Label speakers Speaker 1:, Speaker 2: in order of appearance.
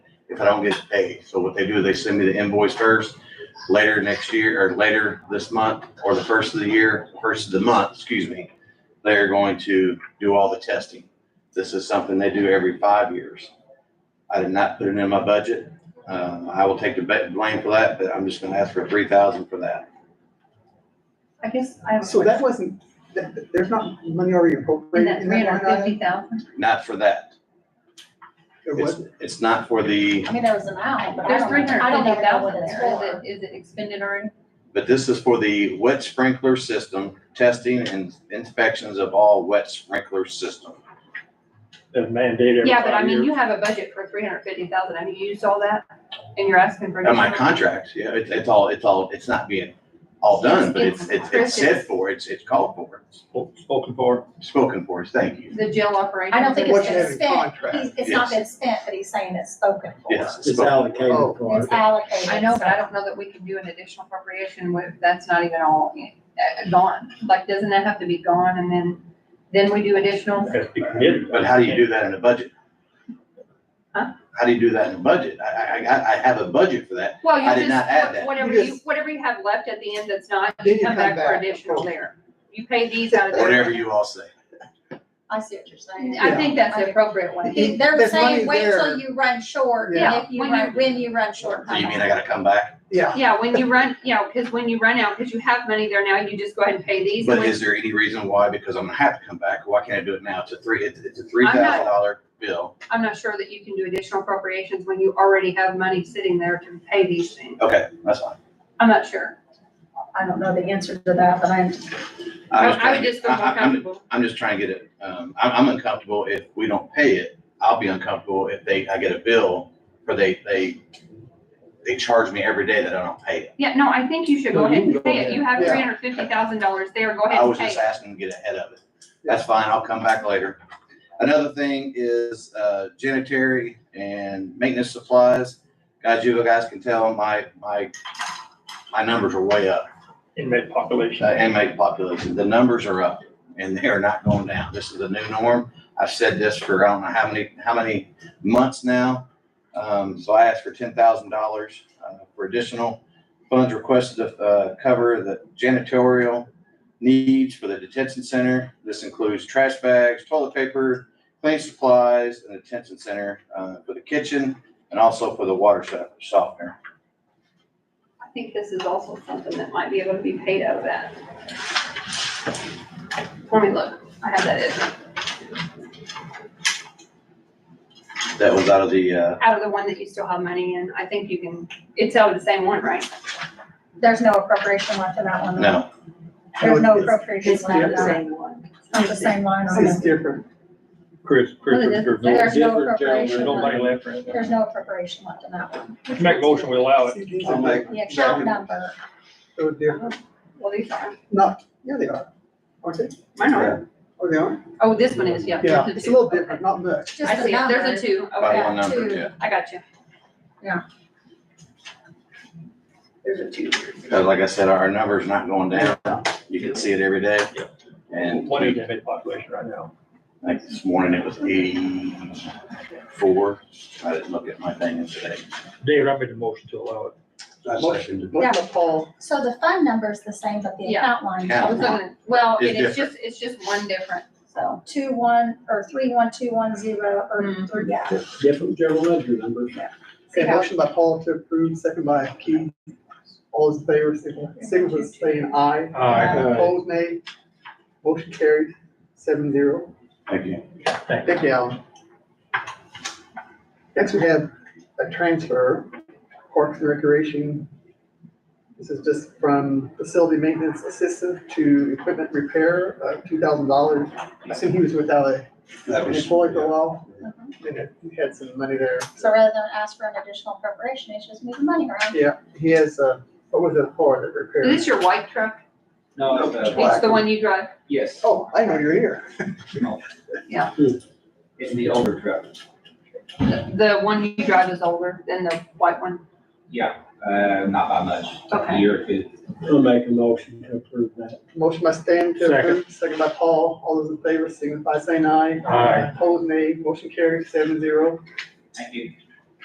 Speaker 1: I don't get paid. So what they do, is they send me the invoice first, later next year, or later this month, or the first of the year, first of the month, excuse me, they're going to do all the testing. This is something they do every five years. I did not put it in my budget. Um, I will take the ba- blame for that, but I'm just gonna ask for three thousand for that.
Speaker 2: I guess I have a
Speaker 3: So that
Speaker 2: question.
Speaker 3: wasn't, that, that- there's not money already
Speaker 2: In
Speaker 3: appropriated
Speaker 2: that
Speaker 3: in
Speaker 2: three
Speaker 3: that line
Speaker 2: hundred
Speaker 3: item?
Speaker 2: fifty thousand,
Speaker 1: Not for that.
Speaker 3: There
Speaker 1: It's,
Speaker 3: wasn't?
Speaker 1: it's not for the,
Speaker 4: I mean, there was an owl, but I
Speaker 2: there's
Speaker 4: don't
Speaker 2: three
Speaker 4: know, I
Speaker 2: hundred
Speaker 4: don't
Speaker 2: fifty
Speaker 4: even know
Speaker 2: thousand
Speaker 4: what it's
Speaker 2: there,
Speaker 4: for.
Speaker 2: is it, is it expended already?
Speaker 1: but this is for the wet sprinkler system, testing and inspections of all wet sprinkler system.
Speaker 5: They're mandated every
Speaker 6: Yeah, but I
Speaker 5: five
Speaker 6: mean,
Speaker 5: years.
Speaker 6: you have a budget for three hundred fifty thousand, have you used all that? And you're asking for.
Speaker 1: And my
Speaker 6: additional?
Speaker 1: contract, yeah, it's, it's all, it's all, it's not being all done, but it's, it's, it's said for, it's, it's called for, it's
Speaker 5: Spo- Spoken for.
Speaker 1: spoken for, it's thank you.
Speaker 6: The jail operation.
Speaker 4: I don't think it's
Speaker 3: What you
Speaker 4: been
Speaker 3: have in
Speaker 4: spent,
Speaker 3: contract?
Speaker 4: He's- it's not been spent, but he's saying it's spoken for.
Speaker 1: Yes.
Speaker 5: It's allocated
Speaker 3: Oh.
Speaker 5: for.
Speaker 4: It's allocated.
Speaker 6: I know, but I don't know that we can do an additional appropriation with, that's not even all uh, gone. Like, doesn't that have to be gone and then, then we do additional?
Speaker 5: Has to be committed.
Speaker 1: But how do you do that in a budget?
Speaker 6: Huh?
Speaker 1: How do you do that in a budget? I, I, I, I have a budget for that.
Speaker 6: Well,
Speaker 1: I did
Speaker 6: you
Speaker 1: not add that.
Speaker 6: just, whatever
Speaker 3: You
Speaker 6: you,
Speaker 3: just-
Speaker 6: whatever you have left at the end that's not,
Speaker 3: Then
Speaker 6: you
Speaker 3: you
Speaker 6: come back for additional
Speaker 3: Okay.
Speaker 6: there. You pay these out of there.
Speaker 1: Whatever you all say.
Speaker 4: I see what you're saying.
Speaker 6: I think that's the appropriate one.
Speaker 4: He- They're
Speaker 3: There's
Speaker 4: saying,
Speaker 3: money
Speaker 4: wait till
Speaker 3: there.
Speaker 4: you run short,
Speaker 6: Yeah,
Speaker 4: and if you
Speaker 6: when
Speaker 4: run,
Speaker 6: you-
Speaker 4: when you run short.
Speaker 1: So you
Speaker 4: come
Speaker 1: mean
Speaker 4: back.
Speaker 1: I gotta come back?
Speaker 3: Yeah,
Speaker 6: Yeah, when you run, yeah, because when you run out, because you have money there now, you just go ahead and pay these.
Speaker 1: But
Speaker 6: and
Speaker 1: is there any reason why? Because I'm gonna have to come back. Why can't I do it now? It's a three, it's, it's a three
Speaker 6: not-
Speaker 1: thousand dollar bill.
Speaker 6: I'm not sure that you can do additional appropriations when you already have money sitting there to pay these things.
Speaker 1: Okay, that's fine.
Speaker 6: I'm not sure.
Speaker 4: I don't know the answer to that, but I'm,
Speaker 1: I'm
Speaker 6: I
Speaker 1: just
Speaker 6: I
Speaker 1: trying
Speaker 6: would
Speaker 1: to
Speaker 6: just
Speaker 1: get- I-
Speaker 6: feel more
Speaker 1: I- I'm-
Speaker 6: comfortable.
Speaker 1: I'm just trying to get it, um, I'm, I'm uncomfortable if we don't pay it. I'll be uncomfortable if they, I get a bill or they, they, they charge me every day that I don't pay it.
Speaker 6: Yeah, no, I think you should go
Speaker 5: No,
Speaker 6: ahead
Speaker 5: you
Speaker 6: and
Speaker 5: go
Speaker 6: pay it.
Speaker 5: ahead.
Speaker 6: You have
Speaker 3: Yeah.
Speaker 6: three hundred fifty thousand dollars there. Go ahead
Speaker 1: I
Speaker 6: and
Speaker 1: was
Speaker 6: pay
Speaker 1: just
Speaker 6: it.
Speaker 1: asking to get ahead of it. That's fine, I'll come back later. Another thing is, uh, janitary and maintenance supplies. Guys, you guys can tell my, my, my numbers are way up.
Speaker 5: Inmate
Speaker 1: uh,
Speaker 5: population.
Speaker 1: inmate population, the numbers are up and they are not going down. This is the new norm. I've said this for, I don't know how many, how many months now. Um, so I asked for ten thousand dollars, uh, for additional funds requested to, uh, cover the janitorial needs for the detention center. This includes trash bags, toilet paper, cleaning supplies, and the detention center, uh, for the kitchen and also for the water so- softener.
Speaker 6: I think this is also something that might be able to be paid out of that. Let me look. I have that in-
Speaker 1: That was out of the, uh,
Speaker 6: out of the one that you still have money in. I think you can, it's out of the same one, right?
Speaker 4: there's no appropriation left in that one.
Speaker 1: no,
Speaker 4: There's no
Speaker 3: No, it's-
Speaker 4: appropriation left in that.
Speaker 6: one.
Speaker 4: On the same line
Speaker 3: this
Speaker 4: on
Speaker 3: is
Speaker 4: it.
Speaker 3: different.
Speaker 5: Chris, Chris,
Speaker 6: Well, it
Speaker 5: there's
Speaker 6: is-
Speaker 5: no,
Speaker 4: there's
Speaker 5: there's
Speaker 4: no
Speaker 5: no, there's
Speaker 4: appropriation.
Speaker 5: nobody left right now.
Speaker 4: There's no appropriation left in that one.
Speaker 5: Make a motion, we allow it.
Speaker 3: See, these
Speaker 1: I'll
Speaker 3: are
Speaker 1: make-
Speaker 4: The account number,
Speaker 3: so different.
Speaker 6: Well, these are,
Speaker 3: Not, yeah, they are. Aren't they?
Speaker 6: mine are.
Speaker 3: Oh, they are?
Speaker 6: Oh, this one is, yeah.
Speaker 3: Yeah,
Speaker 6: there's
Speaker 3: it's a
Speaker 6: two.
Speaker 3: little different, not much.
Speaker 4: just
Speaker 6: I
Speaker 4: the
Speaker 6: see, it.
Speaker 4: number.
Speaker 6: there's a two,
Speaker 1: by
Speaker 6: okay,
Speaker 1: one number,
Speaker 4: Two.
Speaker 1: yeah.
Speaker 6: I got you.
Speaker 4: Yeah.
Speaker 6: There's a two.
Speaker 1: Because like I said, our number's not going down. You can see it every day.
Speaker 5: Yeah.
Speaker 1: And
Speaker 5: What is inmate population right now?
Speaker 1: like this morning, it was eighty-four. I didn't look at my thing today.
Speaker 5: David, I made a motion to allow it.
Speaker 1: Motion.
Speaker 3: Look at Paul.
Speaker 4: So the fund number's the same, but the
Speaker 6: Yeah.
Speaker 4: account line.
Speaker 1: Yeah.
Speaker 6: I was gonna, well,
Speaker 1: It's
Speaker 6: it is just, it's just one different, so.
Speaker 4: Two one, or three one two one zero, or,
Speaker 6: Mm.
Speaker 4: or, yeah.
Speaker 7: Different general ledger numbers.
Speaker 6: See
Speaker 3: Okay,
Speaker 6: how-
Speaker 3: motion by Paul to approve, second by Keith. All those in favor, signal, signal by saying aye.
Speaker 5: Aye.
Speaker 3: Opposed, nay. Motion carried, seven zero.
Speaker 1: Thank you.
Speaker 5: Thank you.
Speaker 3: Thank you, Alan. Next, we have a transfer, Parks and Recreation. This is just from facility maintenance assistant to equipment repair, uh, two thousand dollars. I assume he was without a
Speaker 1: That
Speaker 3: an
Speaker 1: was-
Speaker 3: employee for a while,
Speaker 6: Uh-huh.
Speaker 3: and it- he had some money there.
Speaker 4: So rather than ask for an additional appropriation, it's just moving money around.
Speaker 3: Yeah, he has, uh, what was it for, that
Speaker 6: Is
Speaker 3: repair?
Speaker 6: this your white truck?
Speaker 7: No, it's, uh,
Speaker 6: It's the one you drive?
Speaker 7: yes,
Speaker 3: Oh, I know you're here.
Speaker 7: in the older truck.
Speaker 6: The one you drive is older than the white one?
Speaker 7: Yeah, uh, not by much, a
Speaker 6: Okay.
Speaker 7: year or two.
Speaker 8: I'll make a motion to approve that.
Speaker 3: Motion by Stan to
Speaker 5: Second.
Speaker 3: approve, second by Paul, all those in favor, signify by saying aye.
Speaker 5: Aye.
Speaker 3: Opposed, nay, motion carries seven zero.
Speaker 7: Thank you.